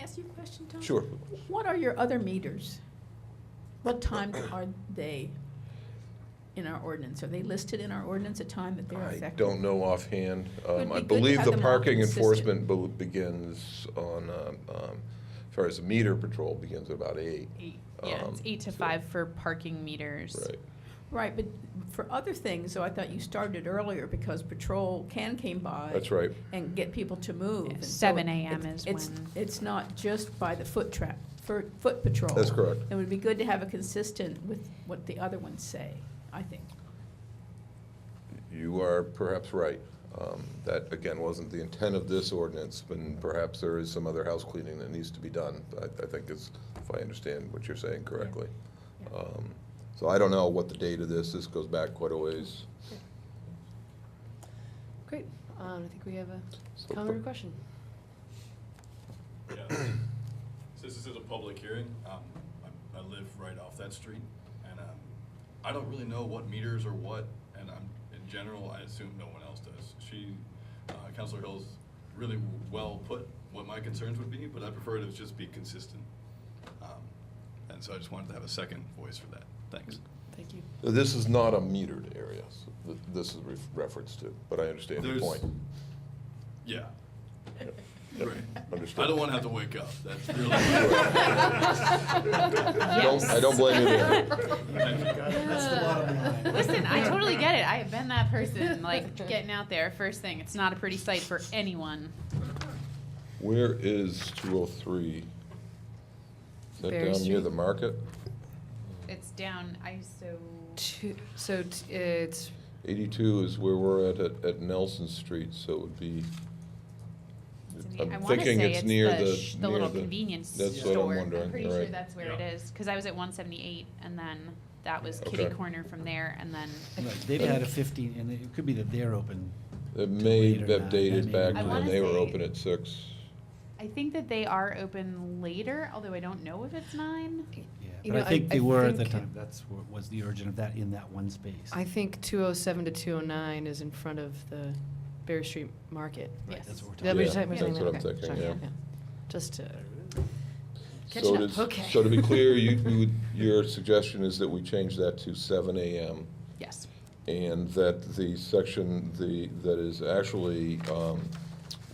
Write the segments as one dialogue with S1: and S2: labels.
S1: ask you a question, Tom?
S2: Sure.
S1: What are your other meters? What times are they in our ordinance? Are they listed in our ordinance, a time that they're
S2: I
S1: effective?
S2: don't know offhand. Um,
S1: Would
S2: I
S1: be good to
S2: believe
S1: have
S2: the
S1: them all
S2: parking
S1: consistent.
S2: enforcement be- begins on, um, um, as far as the meter patrol begins at about eight.
S3: Eight, yeah, it's
S2: Um,
S3: eight to
S2: so-
S3: five for parking meters.
S2: Right.
S1: Right, but for other things, so I thought you started earlier because patrol can came by.
S2: That's right.
S1: And get people to move.
S3: Yeah,
S1: and so
S3: 7 a.m.
S1: it's-
S3: is
S1: it's-
S3: when-
S1: It's not just by the foot trap, for, foot patrol.
S2: That's correct.
S1: It would be good to have a consistent with what the other ones say, I think.
S2: You are perhaps right. Um, That, again, wasn't the intent of this ordinance, and perhaps there is some other house cleaning that needs to be done. I I think is, if I understand what you're saying correctly.
S1: Yeah.
S2: Um, So I don't know what the date of this, this goes back quite a ways.
S4: Great. Um, I think we have a
S2: So
S4: comment or
S2: the-
S4: question.
S5: Yeah, Since this is a public hearing, um, I, I live right off that street, and, um, I don't really know what meters are what, and I'm, in general, I assume no one else does. She, uh, Counselor Hill's really w- well put what my concerns would be, but I prefer to just be consistent. Um, And so I just wanted to have a second voice for that, thanks.
S4: Thank you.
S2: This is not a metered area, so th- this is ref- referenced to, but I understand your
S5: There's-
S2: point.
S5: Yeah.
S2: Yep, yep,
S5: Right.
S2: Understood.
S5: I don't wanna have to wake up, that's really.
S2: I don't- I don't blame you there.
S5: That's
S3: the bottom line. Listen, I totally get it. I have been that person, like getting out there first thing. It's not a pretty sight for anyone.
S2: Where is 203? Is that
S4: Berry
S2: down near
S4: Street.
S2: the market?
S3: It's down ISO.
S4: Two, so t- it's
S2: 82 is where we're at, at- at Nelson Street, so it would be,
S3: it's in the- I
S2: I'm
S3: wanna
S2: thinking
S3: say
S2: it's near the,
S3: sh- the
S2: near
S3: little convenience
S2: That's
S3: store.
S2: what I'm wondering,
S3: pretty
S2: all
S3: sure
S2: right.
S3: that's where it
S5: Yeah.
S3: is because I was at 178, and then that was
S2: Okay.
S3: kitty corner from there, and then
S6: Right, they've had a fifteen, and it could be that they're open.
S2: It
S6: to
S2: may
S6: late or
S2: have
S6: not,
S2: dated
S6: that may
S2: back
S6: not.
S3: I
S2: to when
S3: wanna
S2: they were
S3: say-
S2: open at six.
S3: I think that they are open later. Although I don't know if it's nine.
S6: Yeah,
S4: You
S6: but
S4: know,
S6: I
S4: I-
S6: think
S4: I
S6: they were at the
S4: think-
S6: time, that's what was the origin of that, in that one space.
S4: I think 207 to 209 is in front of the Berry Street Market.
S6: Right,
S3: yes.
S6: that's what we're
S4: Did I
S6: talking
S4: be-
S2: Yeah,
S3: that's
S4: did I be
S6: about.
S4: saying that?
S2: what I'm
S4: Okay,
S2: thinking,
S4: sorry,
S2: yeah.
S4: Just to,
S2: So
S4: catching
S2: it
S4: up,
S2: is-
S4: okay.
S2: So to be clear, you, you would, your suggestion is that we change that to seven AM
S3: Yes.
S2: and that the section, the, that is actually um,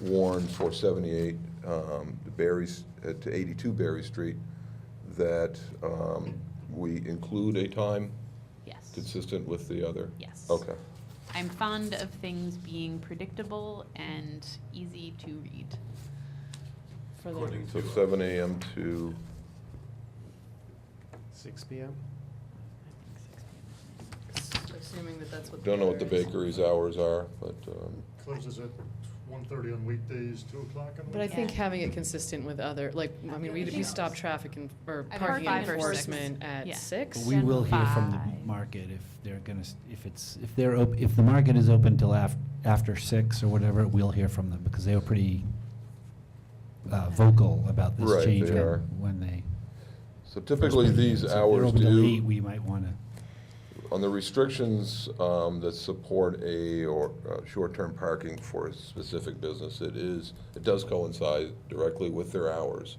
S2: warned for 78 um, Berry's, uh, to 82 Berry Street, that um, we include a time
S3: Yes.
S2: consistent with the other?
S3: Yes.
S2: Okay.
S3: I'm fond of things being predictable and easy to read.
S4: for the-
S5: According
S2: So
S5: to, uh,
S2: 7 AM to,
S7: Six PM?
S4: assuming that that's what.
S2: don't know what the
S4: other is.
S2: bakery's hours are, but, um,
S7: Closes at one thirty on weekdays, two o'clock on
S4: But I
S7: weekends.
S4: think
S3: Yeah.
S4: having it consistent with other, like, I mean, we, we stop traffic and, or
S3: I think
S4: parking
S3: five or six.
S4: enforcement
S3: Yeah.
S4: at
S6: But
S4: six.
S6: we will hear from
S3: Five.
S6: the market if they're gonna, s- if it's, if they're, op- if the market is open till af, after six or whatever, we'll hear from them, because they were pretty uh, vocal about
S2: Right,
S6: this change
S2: they are.
S6: when when they.
S2: so
S6: first
S2: typically
S6: put it in.
S2: these
S6: So if they're
S2: hours
S6: open till
S2: do.
S6: eight, We might wanna.
S2: On the restrictions um, that support a or uh, short-term parking for a specific business, it is, it does coincide directly with their hours.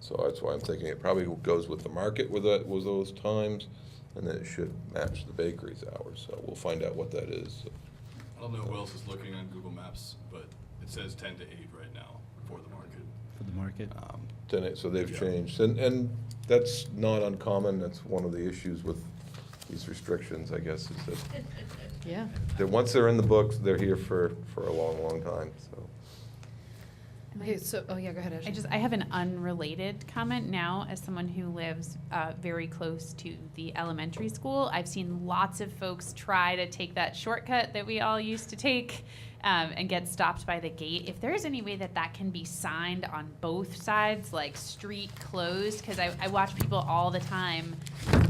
S2: So that's why I'm thinking it probably goes with the market with that, with those times, and then it should match the bakery's hours. So we'll find out what that is.
S5: I don't know who else is looking on Google Maps, but it says ten to eight right now for the market.
S6: For the market.
S2: Uh,
S5: Um,
S2: Then it- So they've
S5: Yeah.
S2: changed, and, and that's not uncommon. That's one of the issues with these restrictions, I guess, is that,
S4: Yeah.
S2: that once they're in the books, they're here for, for a long, long time, so.
S4: Okay, so, oh, yeah, go ahead, Ashley.
S3: I just I have an unrelated comment now as someone who lives uh, very close to the elementary school. I've seen lots of folks try to take that shortcut that we all used to take um, and get stopped by the gate. If there is any way that that can be signed on both sides, like street closed, because I, I watch people all the time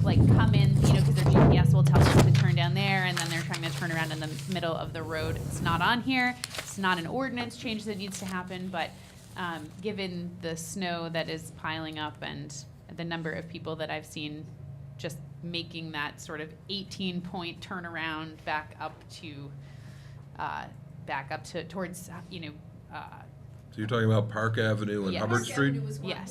S3: like come in, you know, because their GPS will tell them to turn down there, and then they're trying to turn around in the middle of the road. It's not on here. It's not an ordinance change that needs to happen, but um, given the snow that is piling up and the number of people that I've seen just making that sort of 18 point turnaround back up to uh, back up to towards you know uh,
S2: So you're talking about Park Avenue and
S3: Yes.
S2: Hubbard
S3: Park
S2: Street?
S1: Avenue was one
S3: Yes.